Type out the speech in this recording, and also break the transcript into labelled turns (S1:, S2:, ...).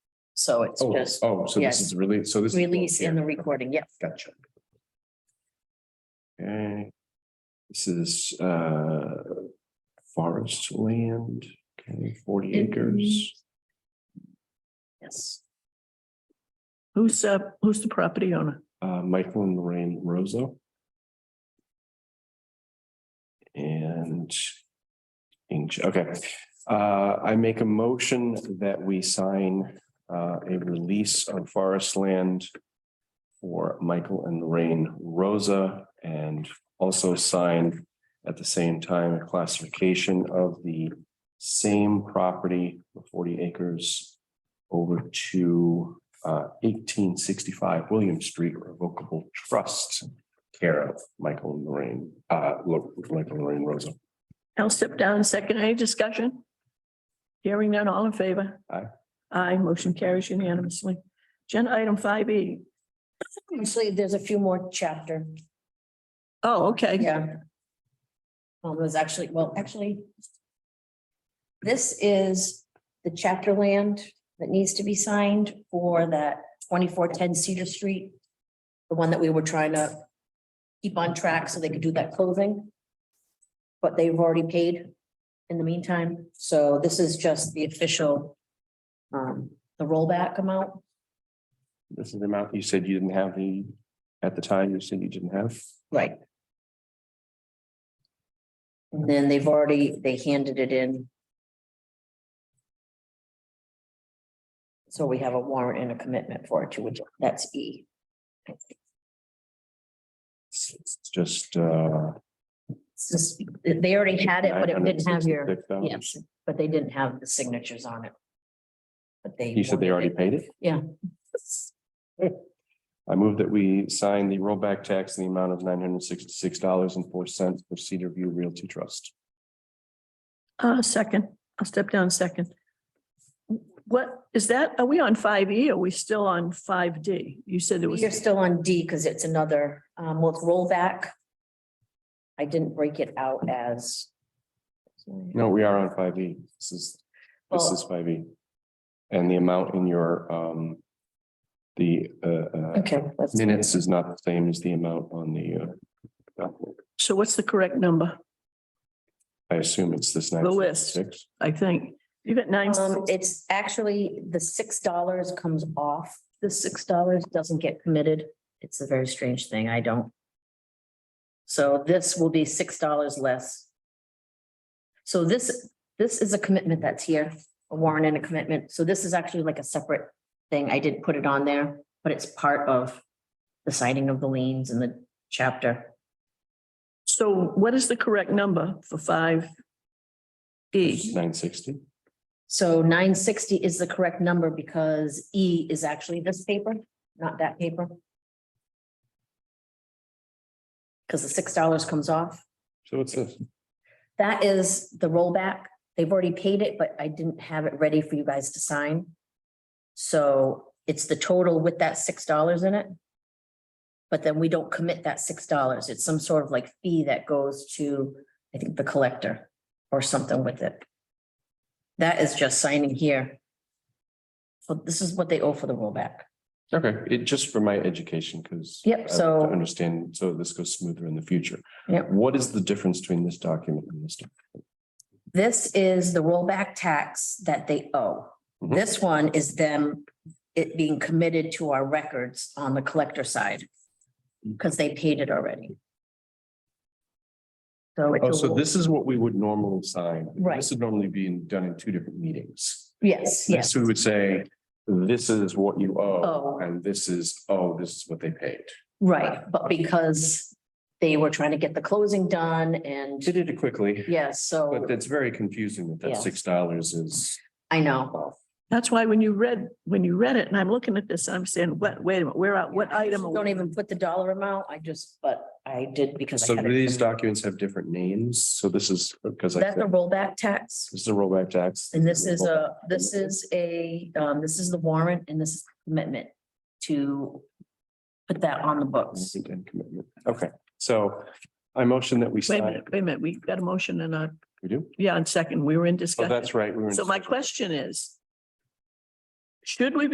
S1: So it's
S2: Oh,
S1: just
S2: oh, so this
S1: yes.
S2: is release, so this. is both
S1: release and the
S2: here.
S1: recording. Yes.
S2: Gotcha. Okay. This is uh forest land, okay, forty
S1: Mm-hmm.
S2: acres.
S1: Yes.
S3: Who's, uh, who's the property owner?
S2: uh, Michael and Lorraine Rosso. And Inch, okay, uh, I make a motion that we sign, uh, a release on forest land for Michael and Lorraine Rosa and also sign at the same time a classification of the same property, the forty acres over to uh, eighteen sixty-five William Street Revocable Trust. Care of Michael and Lorraine, uh, look, Michael and Lorraine Rosa.
S3: I'll step down and second. Any discussion? Hearing none, all in favor?
S2: Aye.
S3: Aye, motion carries unanimously. Agenda item five E.
S1: Actually, there's a few more chapter.
S3: Oh, okay.
S1: Yeah. Well, there's Um, actually, well, actually. This is the chapter land that needs to be signed for that twenty-four ten Cedar Street. The one that we were trying to keep on track so they could do that closing. But they've already paid in the meantime, so this is just the official. Um, the rollback amount.
S2: This is the amount you said you didn't have the, at the time you said you didn't have.
S1: Right. And then they've already, they handed it in. So we have a warrant and a commitment for it, which that's E.
S2: It's it's just, uh.
S1: It's just, they already had it, but it didn't have your,
S2: $966,000.
S1: yes, but they didn't have the signatures on it. But they.
S2: You said they already paid it?
S1: Yeah.
S2: I move that we sign the rollback tax in the amount of nine hundred sixty-six dollars and four cents for Cedar View Realty Trust.
S3: Uh, second, I'll step down second. What, is that, are we on five E? Are we still on five D? You said there was,
S1: You're still on D because it's another, um, well, it's rollback. I didn't break it out as.
S2: No, we are on five E. This is, this
S1: Well-
S2: is five E. And the amount in your, um, the, uh, uh,
S1: Okay, let's.
S2: minutes is not the same as the amount on the, uh, document.
S3: so what's the correct number,
S2: I assume it's this nine.
S3: The list.
S2: six.
S3: I think? You got nine,
S1: Um, it's actually, the six dollars comes off, the six dollars doesn't get committed. It's a very strange thing, I don't. So this will be six dollars less. So this, this is a commitment that's here, a warrant and a commitment, so this is actually like a separate thing, I did put it on there, but it's part of the signing of the liens and the chapter.
S3: so what is the correct number for five? E,
S2: Nine sixty.
S1: So nine sixty is the correct number because E is actually this paper, not that paper. Because the six dollars comes off.
S2: So what's this?
S1: That is the rollback. They've already paid it, but I didn't have it ready for you guys to sign. So it's the total with that six dollars in it. But then we don't commit that six dollars. It's some sort of like fee that goes to, I think, the collector or something with it. That is just signing here. So this is what they owe for the rollback.
S2: Okay, it just for my education, because.
S1: Yep, so-
S2: Understand, so this goes smoother in the future.
S1: Yep.
S2: What is the difference between this document and this? doc-
S1: This is the rollback tax that they owe.
S2: Mhm.
S1: This one is them, it being committed to our records on the collector side. Because they paid it already. So
S2: Oh,
S1: it's, a
S2: so
S1: roll-
S2: this is what we would normally sign.
S1: Right.
S2: This would normally be in- done in two different meetings.
S1: yes, yes,
S2: So we would say, this is what you
S1: Oh.
S2: owe, and this is, oh, this is what they paid.
S1: right, but because they were trying to get the closing done and,
S2: Did it quickly,
S1: yes,
S2: but
S1: so
S2: that's very confusing that
S1: Oh. Yeah.
S2: that six dollars is.
S1: I know.
S3: that's why when you read, when you read it, and I'm looking at this, I'm saying, what, wait a minute, where, are- what item? are we-
S1: Don't even put the dollar amount, I just, but I did because. I
S2: So
S1: had it-
S2: these documents have different names, so this is, because I,
S1: That's a
S2: said,
S1: rollback tax.
S2: this is a rollback tax.
S1: And this is
S2: rollback.
S1: a, this is a, um, this is the warrant and this is commitment to put that on the books.
S2: Consent and commitment. Okay, so I motion that we
S3: Wait a
S2: sign.
S3: minute, wait a minute, we got a motion and a,
S2: We do?
S3: yeah, and second, we were in
S2: Oh,
S3: discussion.
S2: that's right. we were in
S3: So my
S2: discussion.
S3: question is, should we be